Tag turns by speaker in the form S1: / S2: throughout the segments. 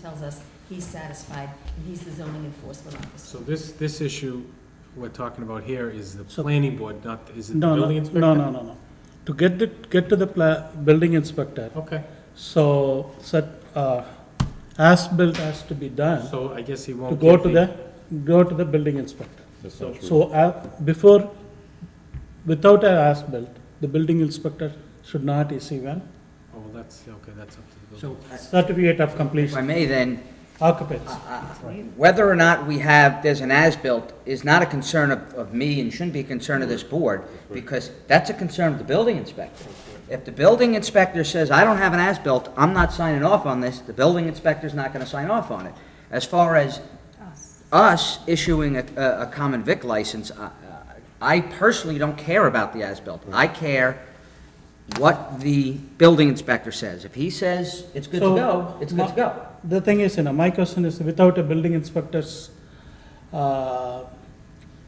S1: tells us he's satisfied, and he's the zoning enforcement officer.
S2: So this, this issue we're talking about here is the
S3: So-
S2: planning board, not, is it the
S3: No, no,
S2: building inspector?
S3: no, no, no, no. To get it, get to the pla, building inspector,
S2: Okay,
S3: so, set, uh, as-built has to be done,
S2: so I guess he
S3: to
S2: won't.
S3: go
S2: give
S3: to the, go to the building inspector.
S4: That's not true.
S3: So, uh, before, without a as-built, the building inspector should not issue an
S2: Oh, well, that's, okay, that's up to the building.
S5: So,
S3: certificate of
S5: if I
S3: completion,
S5: may then,
S3: occupancy.
S5: whether or not we have, there's an as-built is not a concern of, of me and shouldn't be a concern of this board, because that's a concern of the building inspector. If the building inspector says, I don't have an as-built, I'm not signing off on this, the building inspector's not gonna sign off on it. As far as us issuing a, a a common vic license, I- I personally don't care about the as-built. I care what the building inspector says. If he says it's good to
S3: So,
S5: go, it's good to
S3: my-
S5: go.
S3: The thing is, you know, my question is, without a building inspector's, uh,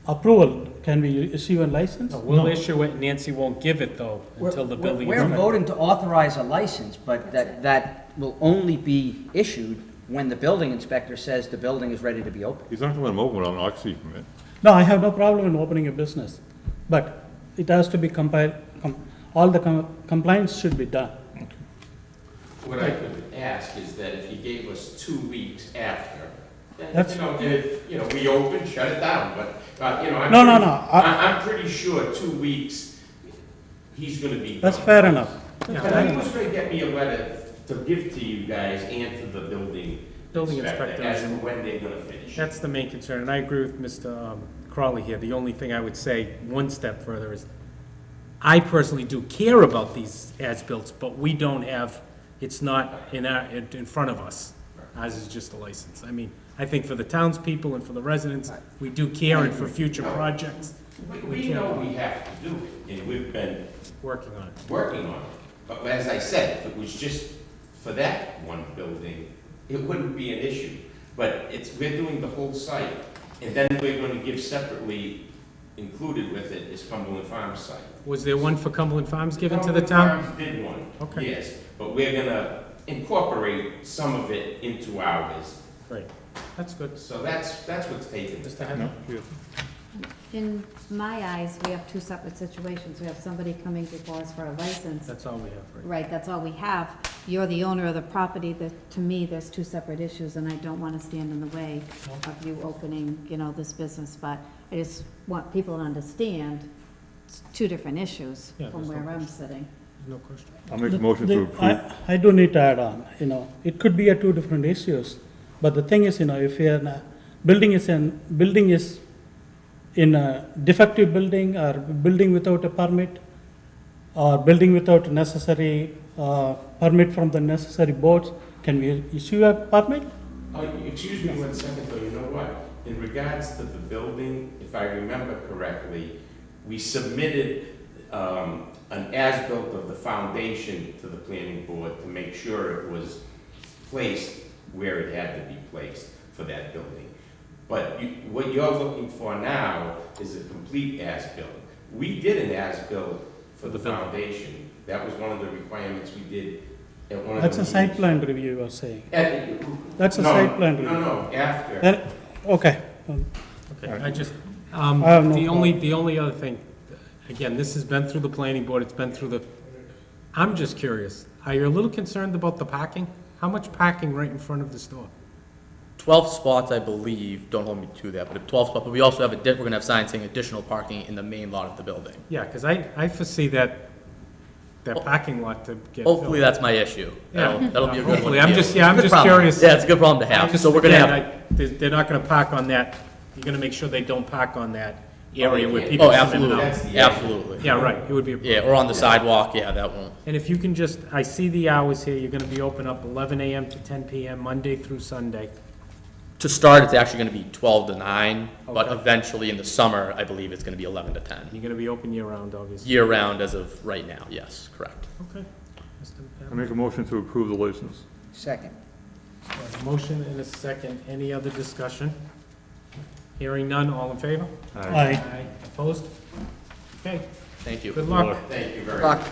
S3: approval, can we issue a license?
S2: No, We'll issue it, Nancy won't give it though, until the
S5: We're- we're-
S2: building.
S5: We're
S2: inspector-
S5: voting to authorize a license, but that, that will only be issued when the building inspector says the building is ready to be opened.
S4: He's not gonna let him open without an occupancy permit.
S3: No, I have no problem in opening a business, but it has to be compiled, com- all the com- compliance should be done.
S6: What I could ask is that if he gave us two weeks after, then,
S3: That's-
S6: you know, if, you know, we open, shut it down, but, uh, you know, I'm.
S3: No, no,
S6: pretty-
S3: no, I-
S6: I, I'm pretty sure two weeks, he's gonna be.
S3: That's
S6: gone.
S3: fair enough.
S6: Yeah, and he was gonna get me a letter to give to you guys and to the building
S2: Building
S6: inspector
S2: inspector.
S6: as to when they're gonna finish.
S2: That's the main concern, and I agree with Mr. um, Crowley here. The only thing I would say, one step further, is I personally do care about these as-built, but we don't have, it's not in our, in in front of us. Ours is just a license. I mean, I think for the townspeople and for the residents, we do care, and for future projects,
S6: We,
S2: we
S6: we know
S2: can't
S6: we have to do it, and we've been
S2: working on it.
S6: working on it. But as I said, if it was just for that one building, it wouldn't be an issue. But it's, we're doing the whole site, and then we're gonna give separately, included with it is Cumberland Farms site.
S2: Was there one for Cumberland Farms given to the town?
S6: Cumberland Farms did one.
S2: Okay.
S6: Yes, but we're gonna incorporate some of it into ours.
S2: Great, that's good.
S6: So that's, that's what's taken.
S2: Mr. Henry?
S7: In my eyes, we have two separate situations. We have somebody coming before us for a license.
S2: That's all we have right now.
S7: Right, that's all we have. You're the owner of the property. That, to me, there's two separate issues, and I don't want to stand in the way of you opening, you know, this business, but I just want people to understand it's two different issues
S2: Yeah,
S7: from
S2: there's no
S7: where I'm sitting.
S2: No question.
S4: I'll make a motion to
S3: The-
S4: approve.
S3: I, I do need to add on, you know, it could be a two different issues, but the thing is, you know, if you're, in a- building is in, building is in a defective building or building without a permit, or building without necessary, uh, permit from the necessary boards, can we issue a permit?
S6: Oh, excuse me one second, though, you know what? In regards to the building, if I remember correctly, we submitted um, an as-built of the foundation to the planning board to make sure it was placed where it had to be placed for that building. But you- what you're looking for now is a complete as-built. We did an as-built for the foundation. That was one of the requirements we did at one of the
S3: That's a site
S6: meetings.
S3: plan review, you are saying.
S6: At-
S3: That's a
S6: no,
S3: site plan
S6: No,
S3: review.
S6: no, after.
S3: Then, okay, um,
S2: Okay, I just, um,
S3: I have no
S2: the only, the only other thing, again, this has been through the planning board, it's been through the, I'm just curious, are you a little concerned about the parking? How much parking right in front of the store?
S8: 12 spots, I believe, don't hold me to that, but 12 spots, but we also have, a di- we're going to have signs saying additional parking in the main lot of the building.
S2: Yeah, because I, I foresee that, that parking lot to get filled.
S8: Hopefully, that's my issue. That'll that'll be a good one.
S2: Hopefully,
S8: to
S2: I'm
S8: deal
S2: just-
S8: with.
S2: yeah, I'm
S8: Good
S2: just
S8: problem.
S2: curious.
S8: Yeah, it's a good problem to
S2: I
S8: have,
S2: just-
S8: so we're going to
S2: again,
S8: have,
S2: I- They're, they're not gonna park on that, you're gonna make sure they don't park on that area where
S6: yeah.
S2: people.
S8: oh,
S2: come in and out.
S6: That's
S8: absolutely,
S6: the issue.
S8: absolutely.
S2: Yeah, right, it would be a
S8: Yeah, or on the sidewalk, yeah, that won't,
S2: And if you can just, I see the hours here, you're gonna be open up eleven AM to ten PM, Monday through Sunday.
S8: to start, it's actually going to be 12 to 9, but
S2: Okay.
S8: eventually, in the summer, I believe it's going to be 11 to 10.
S2: You're gonna be open year-round, obviously.
S8: Year-round as of right now, yes, correct.
S2: Okay. Mr.
S4: I make a motion to approve the license.
S5: Second.
S2: Pat- Motion and a second, any other discussion? Hearing none, all in favor?
S3: I,
S2: Aye. Opposed? Okay,
S8: Thank you.
S2: good luck.
S6: Thank you very much.
S5: Buck,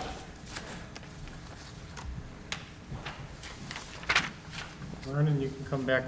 S2: All Vernon, you can come back